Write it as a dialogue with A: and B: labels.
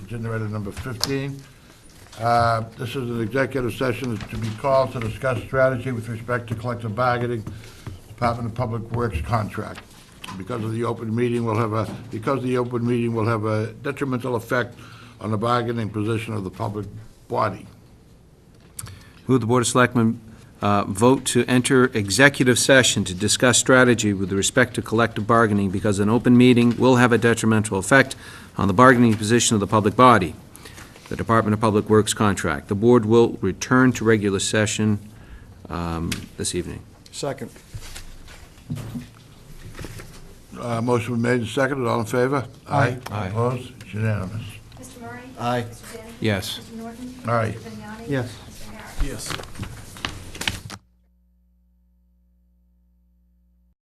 A: agenda item number 15. Uh, This is an executive session to be called to discuss strategy with respect to collective bargaining, Department of Public Works contract. Because of the open meeting will have a, because the open meeting will have a detrimental effect on the bargaining position of the public body.
B: Move the Board of Selectmen uh, vote to enter executive session to discuss strategy with respect to collective bargaining because an open meeting will have a detrimental effect on the bargaining position of the public body, the Department of Public Works contract. The Board will return to regular session um, this evening.
C: Second.
A: Uh, Motion been made and seconded, all in favor? Aye.
B: Aye.
A: Opposed? It's unanimous.
D: Mr. Murray?
C: Aye.
D: Mr. Daly?
B: Yes.
D: Mr. Norton?
A: Aye.
D: Mr. Vignani?
C: Yes.
D: Mr. Harris?
C: Yes.